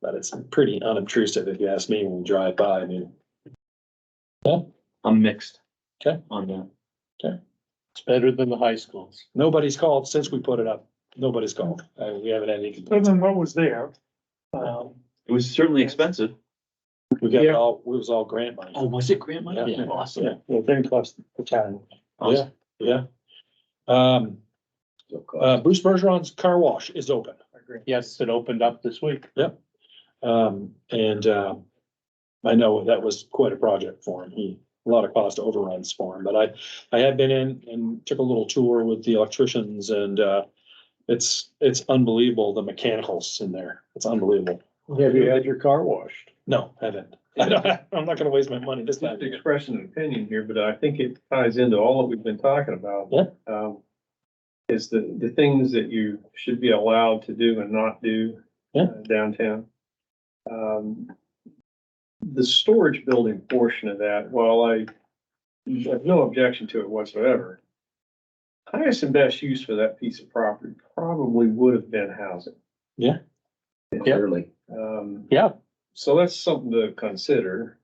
But it's pretty unobtrusive if you ask me when you drive by. I mean, I'm mixed. Okay. On that. It's better than the high schools. nobody's called since we put it up. Nobody's called. Uh, we haven't had any Better complaints. than what was there. Um, It was certainly expensive. We got it Yeah. all, it was all grant money. Oh, was it grant money? Yeah. Awesome. Yeah. well, then plus the town. Yeah, yeah. Um, uh, Bruce Bergeron's car wash is open. Yes, it opened up this week. Um, and, uh, I know that was quite a project for him. He, a lot of cost overruns for him, but I, I have been in and took a little tour with the electricians and, uh, it's, it's unbelievable, the mechanicals in there. It's unbelievable. Have you had your car washed? No, I haven't. I don't, I'm not gonna waste my money this time. Just expressing an opinion here, but I think it ties into all that we've been talking about. Yeah. Um, is the, the things that you should be allowed to do and not do. Yeah. uh, Downtown. Um, the storage building portion of that, while I have no objection to it whatsoever. Highest and best use for that piece of property probably would have been housing. Yeah. Uh, Clearly. Um, Yeah. so that's something to consider.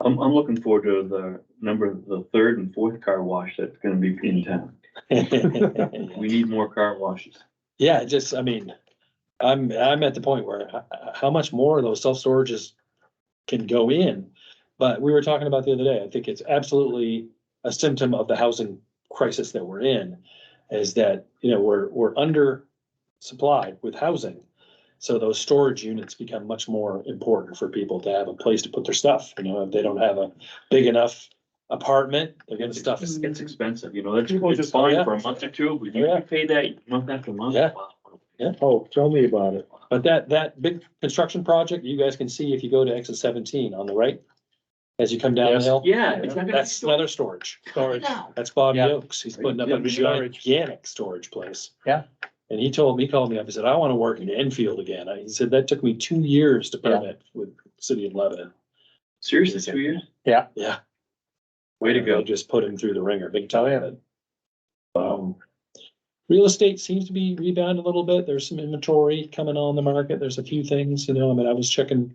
I'm, I'm looking forward to the number, the third and fourth car wash that's gonna be in town. We need more car washes. Yeah, it just, I mean, I'm, I'm at the point where h- h- how much more of those self-storages can go in? But we were talking about the other day, I think it's absolutely a symptom of the housing crisis that we're in. Is that, you know, we're, we're under supplied with housing. So those storage units become much more important for people to have a place to put their stuff, you know, if they don't have a big enough apartment, they're getting stuff. It's it's expensive, you know, that's, People it's just- fine yeah. for a month or two, but Yeah. you pay that month after month. Yeah. Wow. Yeah. Oh, tell me about it. But that, that big construction project, you guys can see if you go to exit seventeen on the right, as you come down the Yes. hill. Yeah. it's not gonna be That's so- leather storage. Storage. That's Bob Yeah. Yokes. He's putting up a Yeah, storage. gigantic storage place. Yeah. And he told me, he called me up, he said, I wanna work in Enfield again. I- He said, that took me two years to Yeah. permit with City of Lebanon. Seriously, two years? Yeah. Way to They go. Just put him through the ringer, big time. Wow. Um, real estate seems to be rebounding a little bit. There's some inventory coming on the market. There's a few things, you know, I mean, I was checking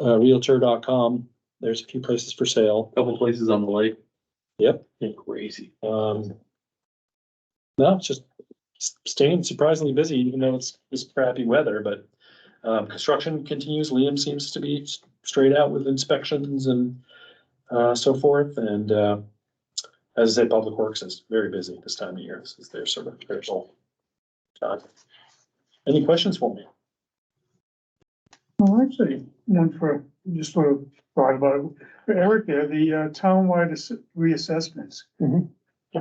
uh, Realtor.com. There's a few places for sale. Couple places on the lake. Yep. Crazy. Um, no, it's just s- staying surprisingly busy, even though it's, it's crappy weather, but um, construction continues. Liam seems to be s- straight out with inspections and uh, so forth. And uh, as I said, Public Works is very busy this time of year. This is their sort of their sole job. Any questions for me? Well, actually, one for, just sort of thought about it, For Eric there, the uh, townwide ass- reassessments. Mhm.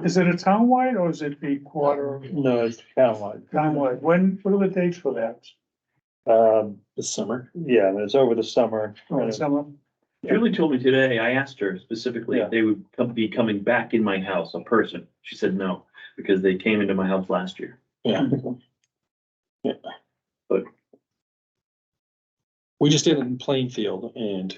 Is it a townwide or is it the quarter No, it's townwide. townwide? When, what are the dates for that? Um, This summer? yeah, and it's over the summer. Or summer? Julie told me today, I asked her specifically Yeah. if they would come- be coming back in my house, a person. She said no, because they came into my house last year. Yeah. Yeah. But- We just did it in Plainfield and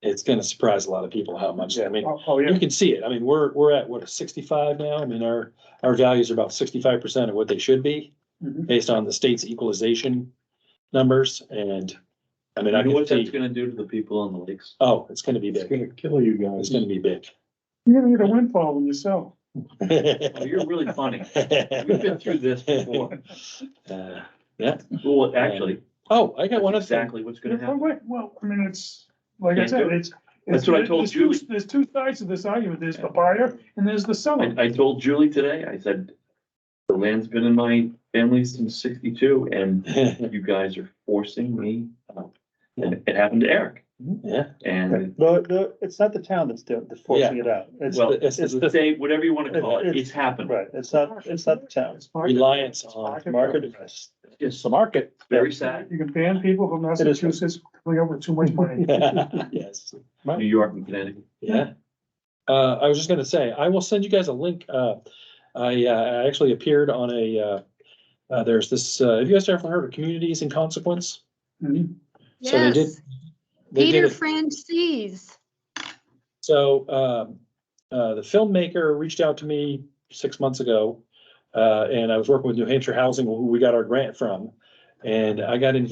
it's gonna surprise a lot of people how much, I mean, Oh, oh, yeah, you can see it. I mean, we're, we're at what, sixty-five now? I mean, our, our values are about sixty-five percent of what they should be Mhm. based on the state's equalization numbers and, I mean, I You know can what that's see, gonna do to the people on the lakes? oh, it's gonna be It's big. gonna kill you It's guys. gonna be big. you're gonna get a windfall when you sell. Oh, You're really funny. We've been through this before. Uh, Yeah. Well, actually, Oh, I got one that's other thing. exactly what's gonna Well, happen. Oh, wait, well, I mean, it's, like I Can't said, do it. it's. That's what I told there's two- Julie. There's two sides to this argument. There's the buyer and there's the seller. I, I told Julie today, I said, the land's been in my family since sixty-two and you guys are forcing me. out." And it happened to Eric Yeah, and No, the, it's not the town that's doing, that's forcing it out. It's, well, it's the- it's the the, state, whatever you wanna call it, It's- it's happened. right, it's not, it's not the town. It's market- reliance it's on Market, it's It's the market. very sad. You can ban people from is. Massachusetts coming up with too much money. yes, New York and Connecticut. yeah. Uh, I was just gonna say, I will send you guys a link. Uh, I, uh, I actually appeared on a, uh, uh, there's this, uh, have you guys ever heard of Communities in Consequence? Mhm. So they did- Yes, They did Peter it- Francis. So, um, uh, the filmmaker reached out to me six months ago. Uh, and I was working with New Hampshire Housing, who we got our grant from. And I got invited